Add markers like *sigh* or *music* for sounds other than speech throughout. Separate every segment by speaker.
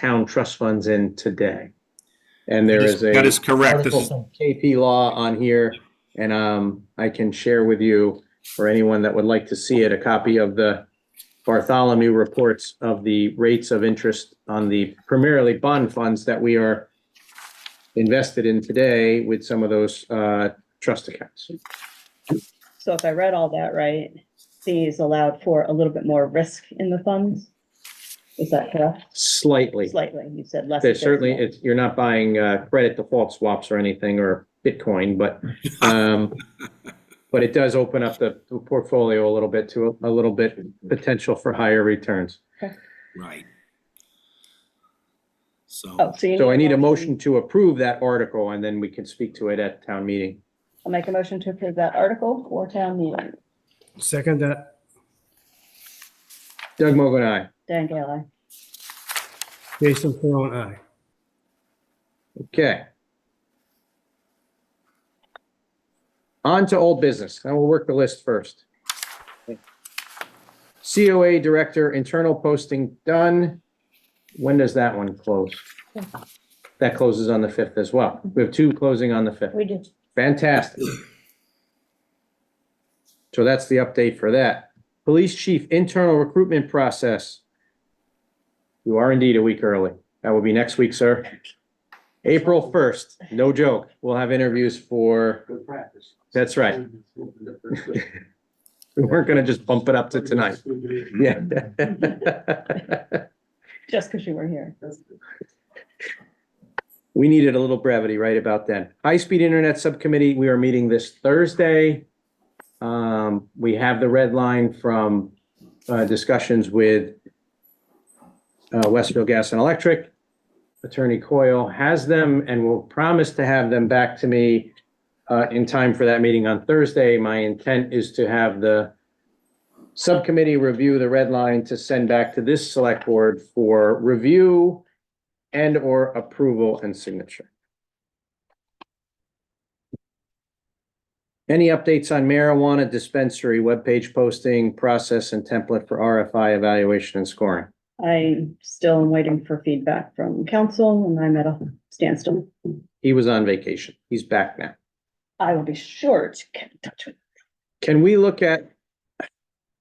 Speaker 1: town trust funds in today. And there is a.
Speaker 2: That is correct. This
Speaker 1: article
Speaker 2: is,
Speaker 1: from KP Law on here, and um, I can share with you, or anyone that would like to see it, a copy of the Bartholomew reports of the rates of interest on the primarily bond funds that we are invested in today with some of those uh, trust accounts.
Speaker 3: So if I read all that right, C is allowed for a little bit more risk in the funds? Is that correct?
Speaker 1: Slightly.
Speaker 3: Slightly, you said less.
Speaker 1: There's certainly,
Speaker 3: adjustment.
Speaker 1: it's, you're not buying uh, credit default swaps or anything or Bitcoin, but um, but it does open up the the portfolio a little bit to a a little bit potential for higher returns.
Speaker 2: right.
Speaker 3: Oh,
Speaker 2: So,
Speaker 3: so you.
Speaker 1: So I need a motion to approve that article and then we can speak to it at town meeting.
Speaker 3: I'll make a motion to approve that article for town meeting.
Speaker 4: Second that,
Speaker 1: Doug Mogul, aye.
Speaker 3: Dan Gale,
Speaker 4: Jason Peron, aye.
Speaker 1: Okay. On to old business. I will work the list first. COA Director, internal posting done. When does that one close? That closes on the 5th as well. We have two closing on the 5th.
Speaker 3: we did.
Speaker 1: Fantastic. So that's the update for that. Police chief internal recruitment process. You are indeed a week early. That will be next week, sir. April first, no joke. We'll have interviews for,
Speaker 5: Good practice.
Speaker 1: that's right. We weren't gonna just bump it up to
Speaker 5: *laughs*
Speaker 1: tonight. *laughs* Yeah.
Speaker 3: Just because you were here.
Speaker 1: We needed a little brevity right about then. High-speed internet subcommittee, we are meeting this Thursday. Um, we have the red line from, uh, discussions with uh, Westfield Gas and Electric. Attorney Coyle has them and will promise to have them back to me, uh, in time for that meeting on Thursday. My intent is to have the subcommittee review the red line to send back to this select board for review and/or approval and signature. Any updates on marijuana dispensary webpage posting, process and template for RFI evaluation and scoring?
Speaker 3: I still am waiting for feedback from council and I'm at a standstill.
Speaker 1: He was on vacation. He's back now.
Speaker 3: I will be sure to get in touch with.
Speaker 1: Can we look at,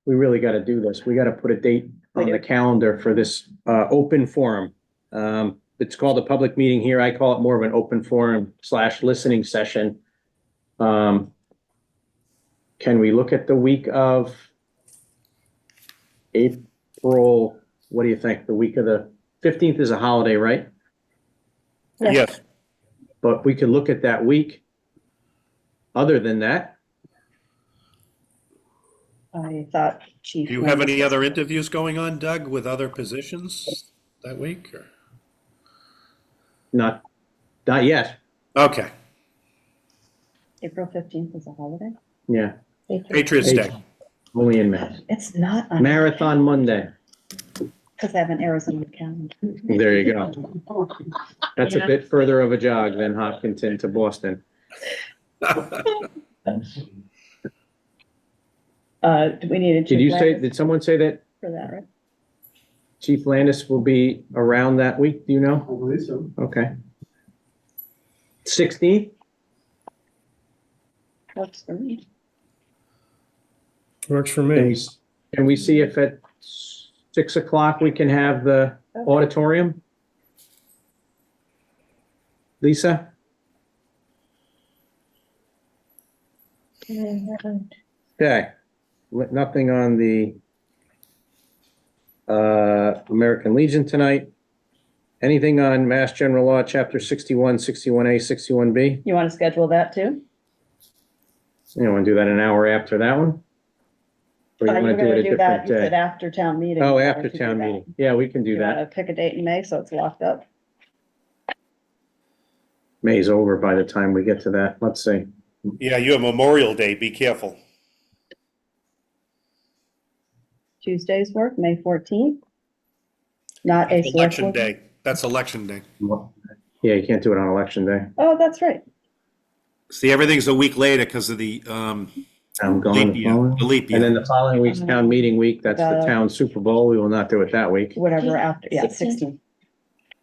Speaker 1: we really got to do this. We got to put a date on the calendar for this uh, open forum. Um, It's called a public meeting here. I call it more of an open forum slash listening session. Um, Can we look at the week of April, what do you think? The week of the 15th is a holiday, right?
Speaker 2: yes,
Speaker 1: But we could look at that week. Other than that,
Speaker 3: I thought chief.
Speaker 2: do you have any other interviews going on, Doug, with other positions that week? or-
Speaker 1: not, not yet.
Speaker 2: Okay,
Speaker 3: April fifteenth is a holiday.
Speaker 1: Yeah,
Speaker 2: Patriots Day.
Speaker 1: only in May.
Speaker 3: It's not, on-
Speaker 1: Marathon Monday.
Speaker 3: because I have an Arizona calendar.
Speaker 1: There you go. That's a bit further of a jog than Hopkinton to Boston.
Speaker 3: Uh, do we need a.
Speaker 1: Did you say,
Speaker 3: chief
Speaker 1: did someone say that
Speaker 3: For that, right?
Speaker 1: Chief Landis will be around that week? Do you know?
Speaker 5: believe so.
Speaker 1: Okay. Sixteenth,
Speaker 3: Works for me.
Speaker 4: Works for me.
Speaker 1: can we see if at six o'clock we can have the auditorium? Lisa? Okay, Li- nothing on the uh, American Legion tonight. Anything on Mass General Law, Chapter 61, 61A, 61B?
Speaker 3: You want to schedule that too?
Speaker 1: You want to do that an hour after that one? Or you
Speaker 3: Uh, you're
Speaker 1: want to do
Speaker 3: gonna
Speaker 1: it a
Speaker 3: that,
Speaker 1: different
Speaker 3: You said
Speaker 1: day?
Speaker 3: after town meeting.
Speaker 1: Oh,
Speaker 3: you
Speaker 1: after
Speaker 3: wanted to do
Speaker 1: town
Speaker 3: that.
Speaker 1: meeting. Yeah, we can do
Speaker 3: You
Speaker 1: that.
Speaker 3: wanna pick a date in May, so it's locked up.
Speaker 1: May's over by the time we get to that. Let's see.
Speaker 2: Yeah, you have Memorial Day, be careful.
Speaker 3: Tuesday's work, May fourteenth. Not a select
Speaker 2: Election
Speaker 3: board-
Speaker 2: Day, that's Election Day.
Speaker 1: Yeah, you can't do it on election day.
Speaker 3: Oh, that's right.
Speaker 2: See, everything's a week later because of the, um,
Speaker 1: I'm gone.
Speaker 2: leap
Speaker 1: the
Speaker 2: year,
Speaker 1: following-
Speaker 2: the leap
Speaker 1: And then
Speaker 2: year.
Speaker 1: the following week's town meeting week, that's the
Speaker 3: Uh,
Speaker 1: town Super Bowl. We will not do it that week.
Speaker 3: Whatever after, yeah, sixteen.